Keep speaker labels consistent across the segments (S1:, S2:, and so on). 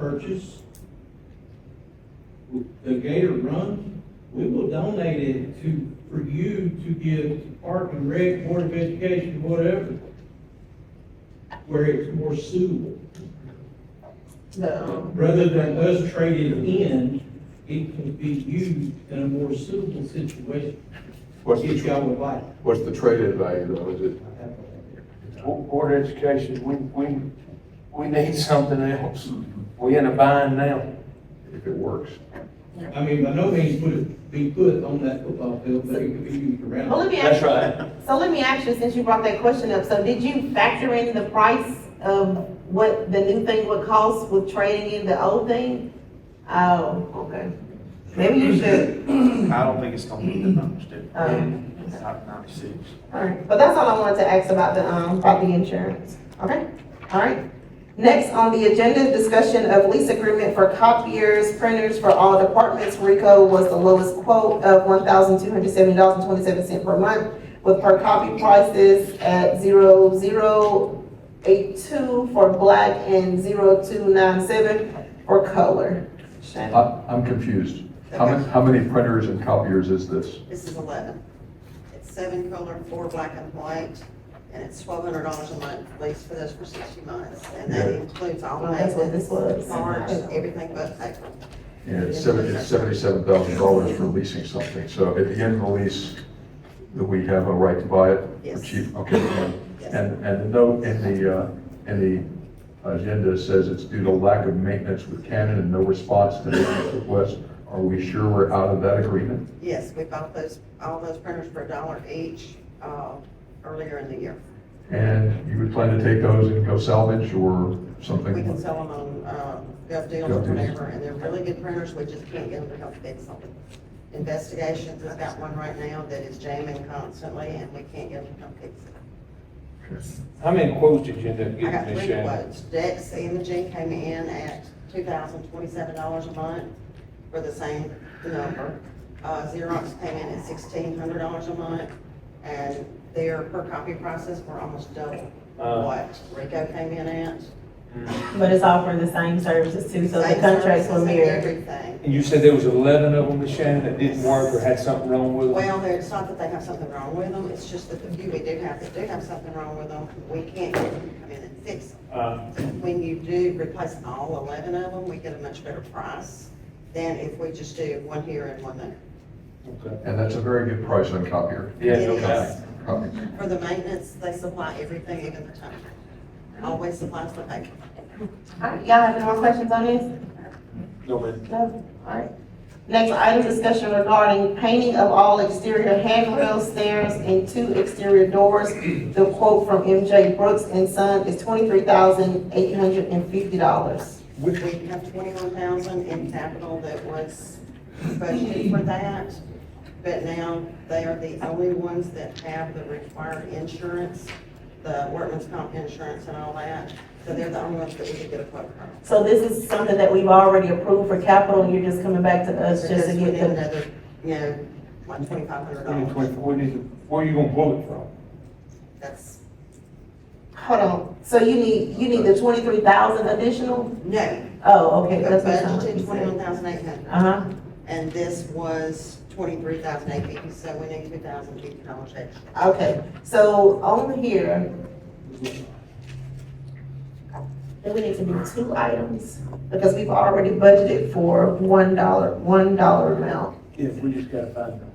S1: purchase. The Gator Run, we will donate it to, for you to give to Park and Rec, Board of Education, whatever, where it's more suitable.
S2: No.
S1: Rather than us trade it in, it can be used in a more suitable situation,
S3: What's
S1: if y'all
S3: the,
S1: would like.
S3: what's the trade-in value though, is it?
S1: I have one right there.
S4: Bo- Board of Education, we, we, we need something else. We in a bind now.
S3: If it works.
S1: I mean, by no means would it be put on that football field, but it could be used
S2: Well,
S1: around.
S2: let
S1: it.
S2: me
S4: That's
S2: ask,
S4: right.
S2: so let me ask you, since you brought that question up, so did you factor in the price of what the new thing would cost with trading in the old thing? Oh, okay. Maybe you should,
S5: I don't think it's gonna be the numbers, dude.
S6: Uh-huh.
S2: Um,
S5: It's not ninety-six.
S2: alright, but that's all I wanted to ask about the, um, about the insurance, okay? Alright. Next on the agenda, is discussion of lease agreement for copiers, printers for all departments. Rico was the lowest quote of one thousand two hundred seventy dollars and twenty-seven cent per month with per copy prices at zero zero eight two for black and zero two nine seven for color. Shannon?
S3: I, I'm confused. How many, how many printers and copiers is this?
S6: This is eleven. It's seven color, four black and white, and it's twelve hundred dollars a month, lease for those for sixty months. And that
S3: Yeah.
S6: includes all
S2: Well, that's what this
S6: maintenance,
S2: was.
S6: parts, everything but paper.
S3: And it's seven, it's seventy-seven thousand dollars for leasing something, so at the end of the lease, that we have a right to buy it? for
S6: Yes.
S3: cheap? Okay, fine.
S6: Yes.
S3: and, and the note in the, uh, in the agenda says it's due to lack of maintenance with Canon and no response to maintenance requests. Are we sure we're out of that agreement?
S6: Yes, we bought those, all those printers for a dollar each, uh, earlier in the year.
S3: And you would plan to take those and go salvage or something?
S6: We can sell them on, uh, gov deals or whatever, and they're really good printers, we just can't get them to help fix them. Investigations has got one right now that is jamming constantly, and we can't get them to come fix it.
S4: How many quotes did you end up
S6: I got
S4: getting this
S6: three
S4: year?
S6: quotes. Dex Imaging came in at two thousand twenty-seven dollars a month for the same number. Uh, Xerox came in at sixteen hundred dollars a month, and their per copy prices were almost double
S4: Uh.
S6: what Rico came in at.
S2: But it's offering the same services too, so the
S6: Same
S2: contracts
S6: services
S2: will
S6: and
S2: mirror.
S6: Everything.
S4: And you said there was eleven of them, Miss Shannon, that didn't work or had something wrong with them?
S6: Well, there- it's not that they have something wrong with them, it's just that the few we do have that do have something wrong with them, we can't get them to come in and fix them.
S4: Uh,
S6: When you do replace all eleven of them, we get a much better price than if we just do one here and one there.
S4: okay.
S3: And that's a very good price on copier.
S4: Yeah, no
S6: It
S4: doubt.
S6: is.
S3: Copy.
S6: For the maintenance, they supply everything, even the time. Always supplies the paper.
S2: Alright, y'all have any more questions on this?
S4: No, man.
S2: No, alright. Next item, discussion regarding painting of all exterior handrails, stairs, and two exterior doors. The quote from MJ Brooks and Son is twenty-three thousand eight hundred and fifty dollars.
S6: We have twenty-one thousand in capital that was budgeted for that, but now they are the only ones that have the required insurance, the workman's comp insurance and all that, so they're the only ones that we could get a quote from.
S2: So this is something that we've already approved for capital, and you're just coming back to us just to
S6: Because we
S2: get
S6: need
S2: the,
S6: Another, you know, like twenty-five hundred
S4: We need
S6: dollars.
S4: 24. We need to- where are you gonna quote it from?
S6: That's,
S2: hold on, so you need, you need the twenty-three thousand additional?
S6: no,
S2: Oh,
S6: we
S2: okay, that's what I'm
S6: budgeted twenty-one thousand eight hundred,
S2: Uh-huh,
S6: and this was twenty-three thousand eight fifty, so we need two thousand fifty dollars extra.
S2: okay, so on here. Then we need to do two items, because we've already budgeted for one dollar, one dollar amount.
S4: Yeah, we just gotta find them.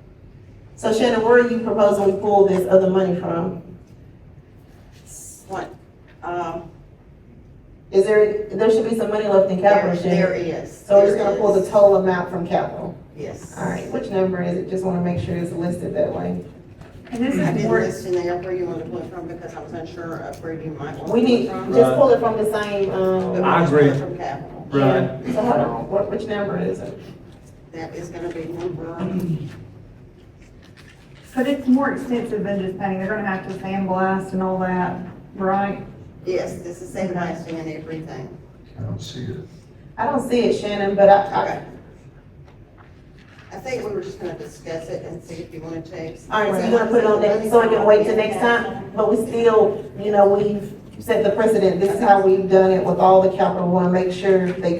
S2: So Shannon, where are you proposing we pull this other money from?
S6: What, um,
S2: Is there, there should be some money left in
S6: there,
S2: capital,
S6: there
S2: Shannon.
S6: is.
S2: So we're
S6: there
S2: just gonna pull the
S6: is.
S2: total amount from capital.
S6: Yes.
S2: All right, which number is it? Just wanna make sure it's listed that way.
S7: And this
S6: I
S7: is
S6: didn't
S7: more,
S6: list in there where you want to pull it from, because I was unsure of where you might want to pull
S2: We need,
S6: it from.
S2: just pull it from the same,
S6: but
S2: um,
S4: I
S6: we'll just pull
S4: agree.
S6: it From capital.
S4: Right.
S2: yeah. So hold on, what, which number is it?
S6: That is gonna be number,
S7: but it's more extensive than just painting, they're gonna have to sandblast and all that, right?
S6: yes, this is sandblasting and everything.
S3: I don't see it.
S2: I don't see it, Shannon, but I,
S6: Okay. I think we were just gonna discuss it and see if you wanted to.
S2: I, all right, so you wanna put it on next, so I can wait till next time? But we still, you know, we've set the precedent, this is how we've done it with all the capital, we wanna make sure they